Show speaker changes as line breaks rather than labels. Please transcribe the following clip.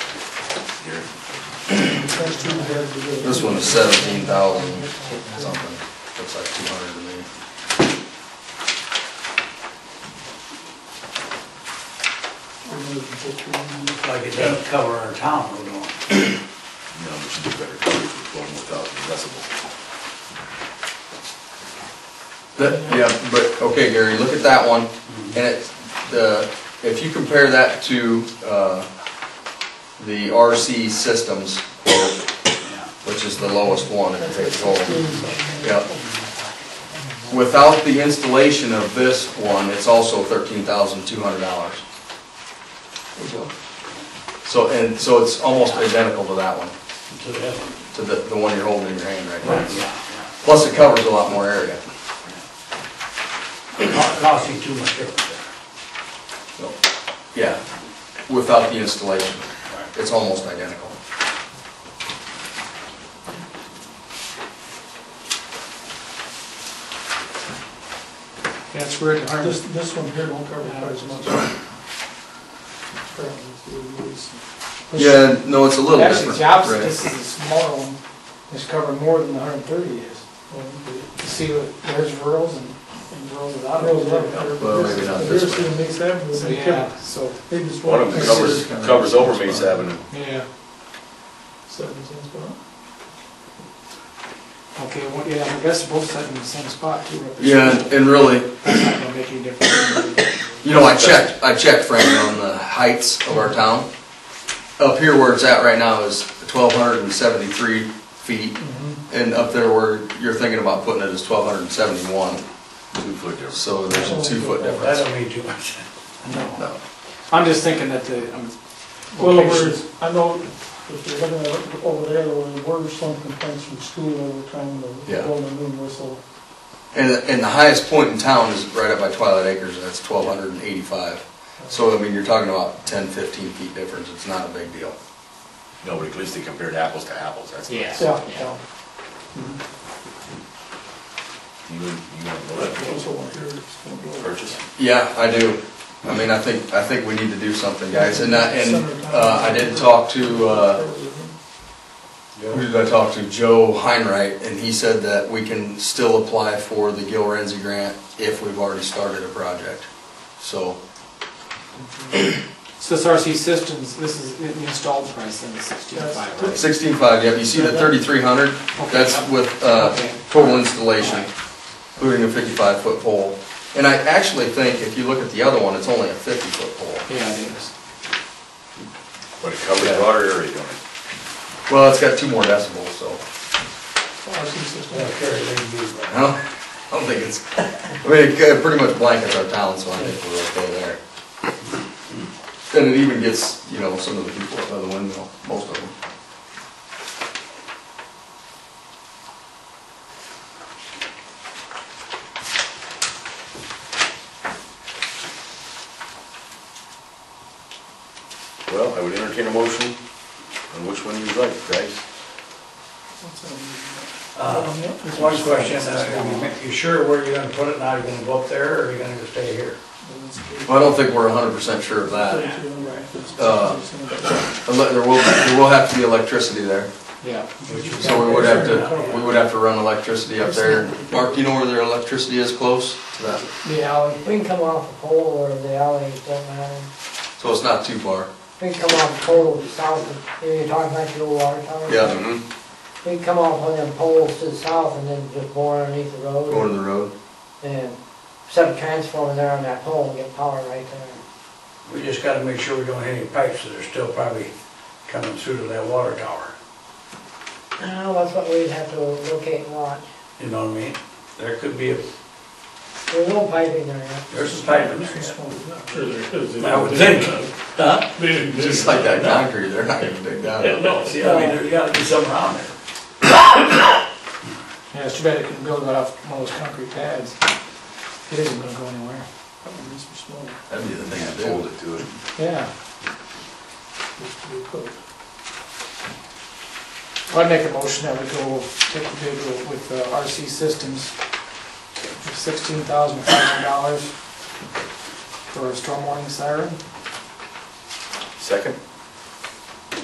first two we have to do.
This one is seventeen thousand something, looks like two hundred to me.
Like it doesn't cover our town, we don't.
No, we should do better, twelve more thousand decibel.
That, yeah, but, okay, Gary, look at that one, and it's, the, if you compare that to, uh, the RC systems,
Yeah.
which is the lowest one in the whole. Yep. Without the installation of this one, it's also thirteen thousand two hundred dollars. So, and, so it's almost identical to that one,
To that one.
to the, the one you're holding in your hand right now.
Yeah, yeah.
Plus it covers a lot more area,
It co- Costs you too much every day.
so, yeah, without the installation. It's almost identical.
That's where it
This,
harms.
this one here won't cover quite as much. Apparently, it's really loose.
Yeah, no, it's a little different.
Actually, it's the opposite,
Right.
this is a smaller one, it's covering more than the hundred and thirty is. You see, what- there's rurals and and rurals without.
Well,
rurals.
Well, maybe not this
Here's the
one.
mixed avenue,
So,
they
yeah,
cover-
so,
they just
One
want.
of them covers, covers over Mace Avenue.
yeah,
Seven cents per hour.
okay, well, yeah, I guess both set in the same spot too. up there.
Yeah, and- and really,
That's not gonna make any difference.
You know, I checked, I checked, Frank, on the heights of our town. Up here where it's at right now is twelve hundred and seventy-three feet, and up there where you're thinking about putting it is twelve hundred and seventy-one,
Two foot difference.
so there's a two-foot
That
difference.
don't mean too much. No.
No.
I'm just thinking that the, um,
Well,
locations,
we're- I know, if you're looking at over there, there were some complaints from school over trying to
Yeah.
blow the moon whistle.
And, and the highest point in town is right up by Twilight Acres, and that's twelve hundred and eighty-five. So, I mean, you're talking about 10, 15 feet difference, it's not a big deal.
No, but at least they compared apples to apples, that's nice.
Yeah, yeah.
You, you want to know that?
This one here is gonna blow.
Purchase?
Yeah, I do. I mean, I think, I think we need to do something, guys, and I, and, uh, I did talk to, uh, Who did I talk to? Joe Heinright, and he said that we can still apply for the Gil Renzi grant if we've already started a project. So,
so this RC systems, this is the installed price then is sixty-five, right?
sixteen-five, yep, you see the thirty-three hundred? That's with, uh, total installation, including a fifty-five foot pole. And I actually think if you look at the other one, it's only a fifty foot pole.
Yeah, it is.
But it covers a broader area, don't it?
Well, it's got two more decibels, so,
RC system.
Yeah, carry it, they can do that.
I don't, I don't think it's, I mean, it kinda pretty much blankets our town, so I think we're okay there. And it even gets, you know, some of the people up by the windmill, most of them.
Well, I would entertain a motion on which one you'd like, guys.
What's that?
Uh, One question, uh, you sure where you're gonna put it now? You're gonna go up there or you're gonna stay here?
Well, I don't think we're hundred percent sure of that. Uh,
Right.
Ele- There will, there will have to be electricity there,
Yeah.
so we would have to, we would have to run electricity up there. Mark, do you know where their electricity is close to that?
The alley.
We can come off a pole or the alley, it doesn't matter.
So it's not too far.
We can come off a pole south of, you're talking about your old water tower?
Yeah,
Mm-hmm.
We can come off one of them poles to the south and then just bore underneath the
going
road
to the road.
and set a transformer there on that pole and get power right there.
We just gotta make sure we don't hit any pipes that are still probably coming through to that water tower.
Now, Oh, that's what we'd have to locate and watch.
You know what I mean? There could be, a
There's no piping there yet.
there's a pipe in there.
This one is not.
Sure there is.
I would think. Huh?
They didn't do
Just like that
it.
concrete, they're not gonna dig that
Yeah,
up.
no,
See, I mean, there's gotta be some around there.
Yeah, it's too bad it couldn't build that off one of those concrete pads. It isn't gonna go anywhere.
That one needs to be smaller.
That'd be the thing to
Hold
do.
it to it.
Yeah.
This should be put.
I'd make a motion that we go take the bid with uh, RC Systems for sixteen thousand five hundred dollars for a storm warning siren.
Second?